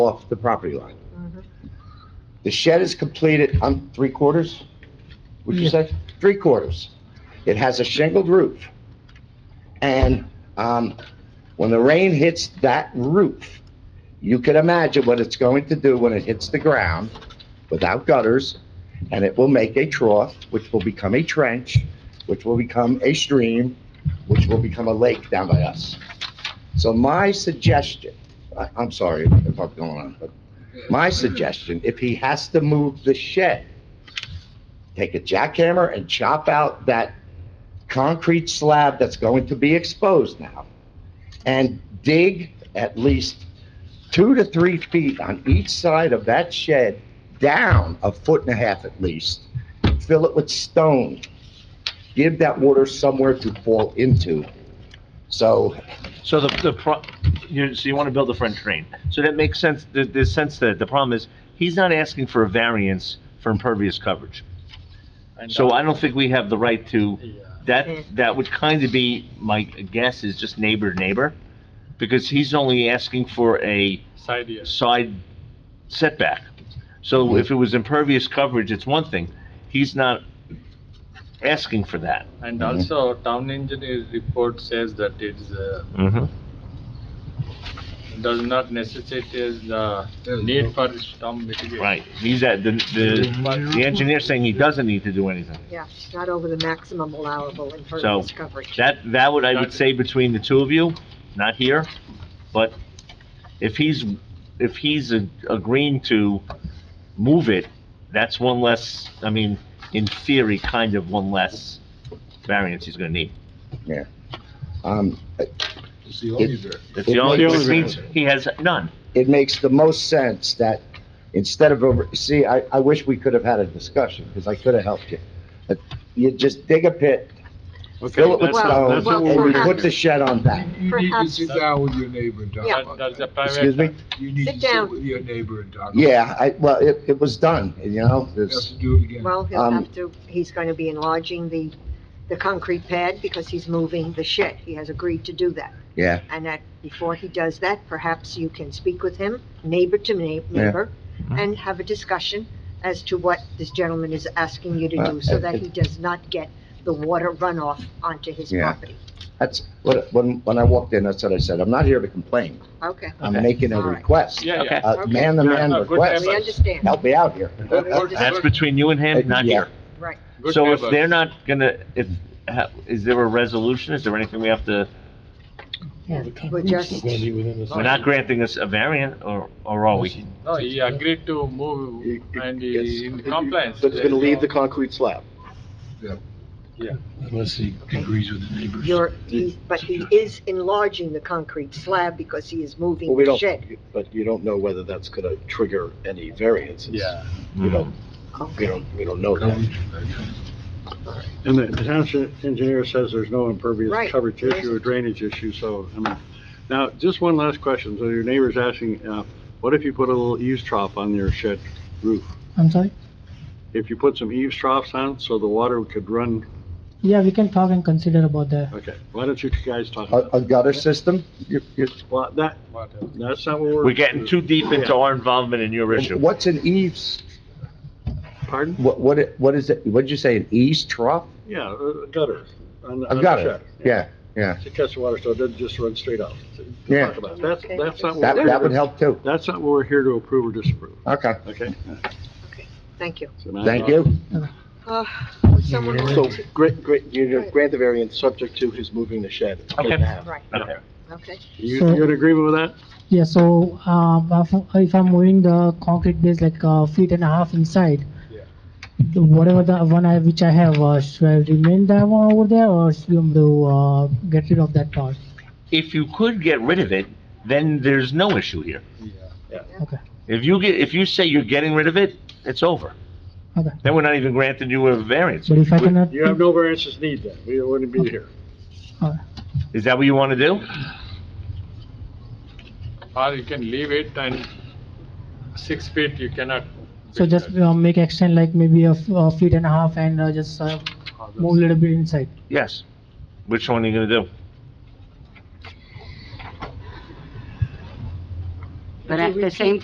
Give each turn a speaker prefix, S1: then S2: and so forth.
S1: off the property line. The shed is completed, I'm three quarters, would you
S2: Yeah.
S1: say? Three quarters. It has a shingled roof. And um, when the rain hits that roof, you can imagine what it's going to do when it hits the ground without gutters, and it will make a trough, which will become a trench, which will become a stream, which will become a lake down by us. So my suggestion, I- I'm sorry if I'm going on, but my suggestion, if he has to move the shed, take a jackhammer and chop out that concrete slab that's going to be exposed now, and dig at least two to three feet on each side of that shed, down a foot and a half at least, fill it with stone, give that water somewhere to fall into. So
S3: So the, the, pro- you, so you want to build a French drain. So that makes sense, there, there's sense that the problem is, he's not asking for a variance for impervious coverage. So I don't think we have the right to, that, that would kind of be, my guess is just neighbor to neighbor, because he's only asking for a
S4: Side yard.
S3: side setback. So if it was impervious coverage, it's one thing, he's not asking for that.
S4: And
S1: Mhm.
S4: also, town engineer's report says that it's, uh,
S3: Mm-hmm.
S4: does not necessitate is the need for storm mitigation.
S3: Right, he's at, the, the, the engineer's saying he doesn't need to do anything.
S5: Yeah, not over the maximum allowable impervious coverage.
S3: That, that would, I would say between the two of you, not here, but if he's, if he's a- agreeing to move it, that's one less, I mean, in theory, kind of one less variance he's gonna need.
S1: um,
S6: It's the only dirt.
S3: That's the only,
S1: The only
S3: which means he has none.
S1: it makes the most sense that instead of over, see, I, I wish we could have had a discussion, because I could have helped you. But You just dig a pit, fill it with
S5: that's- Well,
S1: stone,
S5: that's what
S1: and
S5: we're
S1: you put
S5: having.
S1: the shed on that.
S6: You need to
S5: Perhaps-
S6: sit down with your neighbor and talk
S5: Yeah.
S4: That,
S6: about
S4: that's a
S6: that.
S4: private.
S1: Excuse me?
S6: You need
S5: Sit
S6: to
S5: down.
S6: sit with your neighbor and talk. about
S1: Yeah, I, well, it, it was done, you
S6: it.
S1: know,
S6: You have
S1: there's,
S6: to do it again.
S5: Well, he'll
S1: Um,
S5: have to, he's going to be enlarging the, the concrete pad because he's moving the shed. He has agreed to do that.
S1: yeah.
S5: And that, before he does that, perhaps you can speak with him, neighbor to neigh-
S1: Yeah.
S5: neighbor, and have a discussion as to what this gentleman is asking you to
S1: Uh,
S5: do so that
S1: it-
S5: he does not get the water runoff onto his
S1: Yeah.
S5: property.
S1: That's, what when, when I walked in, that's what I said, I'm not here to complain,
S5: Okay,
S1: I'm
S3: Okay.
S1: making a
S5: All right.
S1: request. Uh,
S4: Yeah, yeah.
S1: A man-to-man
S4: Yeah, good
S1: request,
S5: we understand.
S1: help me out here.
S4: Good- good-
S3: That's between you and him, not
S1: Yeah.
S3: here.
S5: Right.
S4: good
S3: So if
S4: neighbor.
S3: they're not gonna, if, ha- is there a resolution? Is there anything we have to,
S5: We're just,
S3: we're not granting us a variant, or, or are we?
S4: No, he agreed to move and he in compliance.
S7: But it's gonna leave the concrete slab.
S6: Unless he agrees with the neighbors.
S5: you're, he- but he is enlarging the concrete slab because he is moving
S7: Well, we
S5: the
S7: don't,
S5: shed.
S7: but you don't know whether that's gonna trigger any variances.
S4: Yeah.
S7: You don't, we
S5: Okay.
S7: don't, we don't know that.
S8: And the the township engineer says there's no
S5: Right.
S8: impervious coverage issue or drainage issue, so, I mean, now, just one last question, so your neighbor's asking, uh, what if you put a little eaves trough on your shed roof?
S2: I'm sorry?
S8: If you put some eaves troughs on, so the water could run,
S2: Yeah, we can talk and consider about that.
S8: okay, why don't you guys talk
S1: A,
S8: about
S1: a gutter system, you, you,
S8: Well, that,
S4: Whatever.
S8: that's not what we're.
S3: We're getting too deep into our involvement in your issue.
S1: what's an eaves,
S8: Pardon?
S1: what, what, it- what is it, what'd you say, an eaves trough?
S8: Yeah, a gutter. on- on
S1: A
S8: the
S1: gutter,
S8: shed.
S1: yeah,
S8: To catch the water, so it doesn't just run straight out. To- to
S1: Yeah.
S8: talk about. That's,
S5: Okay.
S8: that's not. what
S1: that,
S8: we're-
S1: that would help too,
S8: That's not what we're here to approve or disapprove,
S1: okay,
S8: okay?
S5: Thank you.
S8: So now-
S1: thank you.
S5: Uh, would someone
S7: So,
S5: want to,
S7: grant, grant, you know, grant the variance subject to his moving the shed.
S3: Okay.
S7: And a half.
S5: right,
S3: Okay.
S5: okay.
S8: You,
S2: So-
S8: you in agreement with that?
S2: Yeah, so, um, if- if I'm moving the concrete base like a feet and a half inside, whatever the one I, which I have, uh, should I remain that one over there or should I do, uh, get rid of that part?
S3: If you could get rid of it, then there's no issue here.
S2: Okay.
S3: If you get, if you say you're getting rid of it, it's over.
S2: Okay.
S3: Then we're not even granting you a variance.
S2: But if I cannot,
S8: You have no variances need then, we wouldn't be here.
S3: Is that what you want to do?
S4: Or you can leave it and six feet you cannot.
S2: so just uh, make extend like maybe a f- a feet and a half and uh, just uh, move a little bit inside.
S3: Yes. Which one are you gonna do?
S9: But at the same